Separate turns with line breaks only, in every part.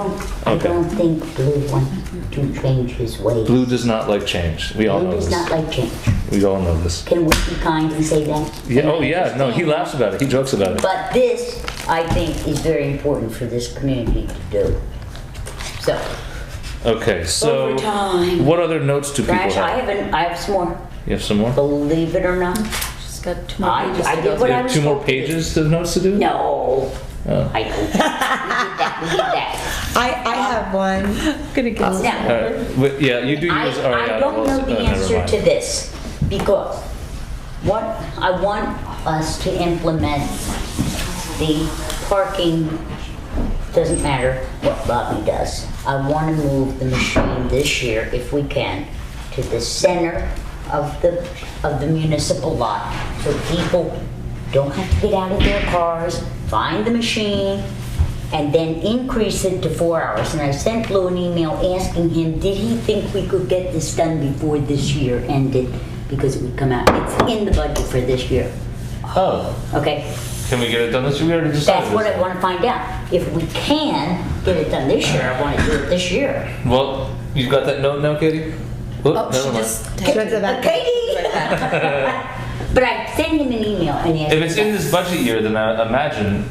don't, I
Okay.
don't think Blue wants to change his ways.
Blue does not like change. We all
Blue
know
does not
this.
like change.
We all know this.
Can we be kind and say that?
Yeah, oh yeah, no, he laughs about it. He jokes about it.
But this, I think, is very important for this community to do. So,
Okay, so
Overtime.
what other notes do people
Raj, I
have?
have, an, I have some more.
You have some more?
Believe it or not,
She's got two more
I,
pages
I
to go
did
through.
what
You
I
have
was.
two more
told to do.
pages of notes to do?
No.
Oh.
I know. We did that, we did that.
I, I have one.
I'm gonna get
Now,
All right. Wait, yeah, you do
I,
yours. All right,
I don't
well,
know the
uh, never
answer
mind.
to this, because what, I want us to implement the parking, doesn't matter what Bobby does. I wanna move the machine this year, if we can, to the center of the, of the municipal lot, so people don't have to get out of their cars, find the machine, and then increase it to four hours. And I sent Lou an email asking him, did he think we could get this done before this year ended? Because it would come out, it's in the budget for this year,
Oh,
okay?
can we get it done this year? We already decided.
That's what
this.
I wanna find out. If we can get it done this year, I wanna do it this year.
Well, you got that note now, Katie? Whoop,
Oh,
never
she
mind.
just.
She went to the back.
Katie! But I sent him an email and he asked.
If it's in this budget year, then I imagine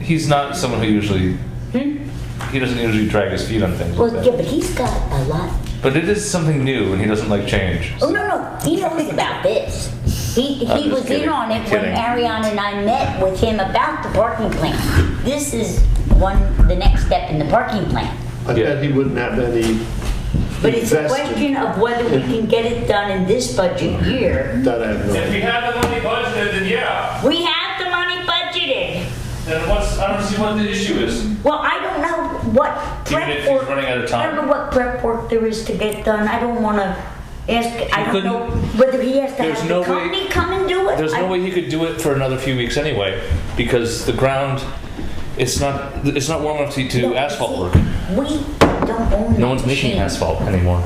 he's not someone who usually hmm? he doesn't usually drag his feet on things.
Well,
like
yeah,
that.
but he's got a lot
But it is something new, and he doesn't like change.
Oh, no, no, he knows about this. He,
I'm
he
just
was in
kidding.
on it when
Kidding.
Ariana and I met with him about the parking plan. This is one, the next step in the parking plan.
I
Yeah.
bet he wouldn't have any
But it's a
Invested.
question of whether we can get it done in this budget year.
that I have no.
If we have the money budgeted, then yeah.
We have the money budgeted.
Then what's, I don't see what the issue is.
Well, I don't know what
Even
prep
if he's
work.
running out of
I don't
time.
know what prep work there is to get done. I don't want to ask, I don't
couldn't-
know whether he has to
There's
have
no
the
way-
company come and do it.
There's no
I-
way he could do it for another few weeks anyway, because the ground, it's not it's not warm enough to
No,
do
you
asphalt
see,
work.
We don't own.
No one's
that
making
machine,
asphalt anymore.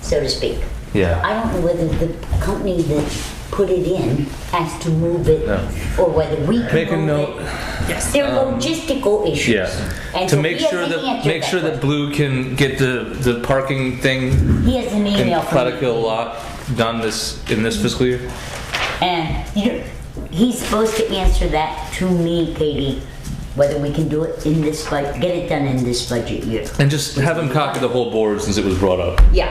So to speak.
Yeah.
I don't know whether the company that put it in has to move it
No.
or whether we can move it.
Make a note.
Yes. They're logistical issues.
Yeah.
And
To
so
make
he
sure
hasn't
that
answered
make sure that Blue can get the the parking thing
question. He has an email
in
from me.
Platicille lot done this in this fiscal year.
And, you know, he's supposed to answer that to me, Katie, whether we can do it in this, bud- get it done in this budget year.
And just have him copy the whole board since it was brought up.
Yeah,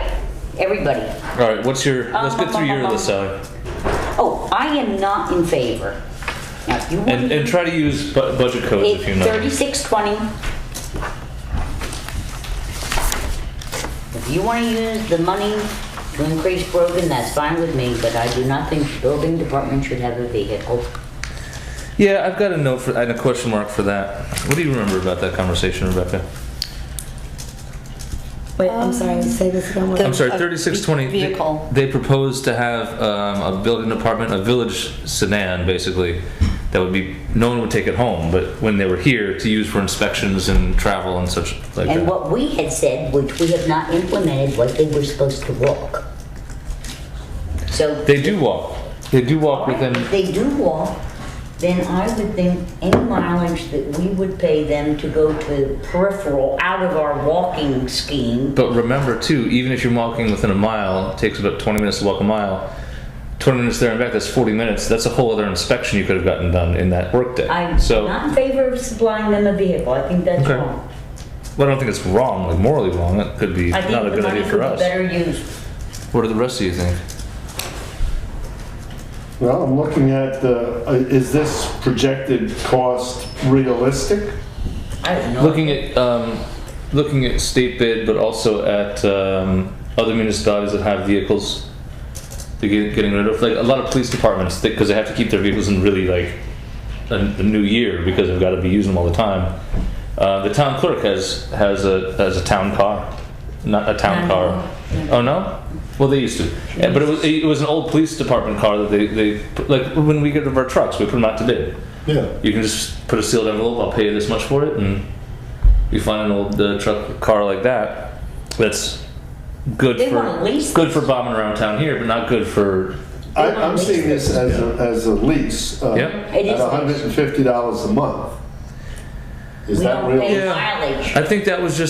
everybody.
All right, what's your?
Um,
Let's get through your list, Sally,
Oh, I am not in favor. Now, if you want
and and try to use bu- budget codes if you
It's
know.
thirty-six twenty. If you wanna use the money to increase Brogan, that's fine with me, but I do not think the building department should have a vehicle.
Yeah, I've got a note for and a question mark for that. What do you remember about that conversation, Rebecca?
Wait, I'm sorry, say this again. what-
I'm sorry,
a
thirty-six twenty.
vehicle.
They proposed to have um, a building department, a village sedan, basically, that would be, no one would take it home, but when they were here, to use for inspections and travel and such like
And
that.
what we had said, which we have not implemented, was they were supposed to walk. So.
They do walk, they do walk within,
If they do walk, then I would think any mileage that we would pay them to go to peripheral, out of our walking scheme,
but remember too, even if you're walking within a mile, it takes about twenty minutes to walk a mile, twenty minutes there and back, that's forty minutes, that's a whole other inspection you could have gotten done in that workday.
I'm
So,
not in favor of supplying them a vehicle. I think that's
Okay.
wrong.
well, I don't think it's wrong, like morally wrong, that could be
I think
not a
the
good
money
idea for
could be
us.
Better used.
What do the rest of you think?
Well, I'm looking at the, uh, is this projected cost realistic?
I don't know.
Looking at um, looking at state bid, but also at um, other municipalities that have vehicles. They're get- getting rid of like a lot of police departments because they have to keep their vehicles in really like a, a new year because they've got to be using them all the time. Uh, the town clerk has has a has a town car, not a town
No.
car. Oh no. Well, they used to, Yeah, but it was it was an old police department car that they, they like when we get rid of our trucks, we put them out to bid
Yeah.
you can just put a sealed envelope. I'll pay you this much for it, and you find an old uh, truck car like that. That's good
They wanna
for
lease
good for bombing around town here, but not good for
I, I'm seeing this as a, as a lease. uh,
Yep.
It is
At
lease.
hundred and fifty dollars a month. Is
We
that
don't
real?
pay
Yeah.
mileage.
I think that was just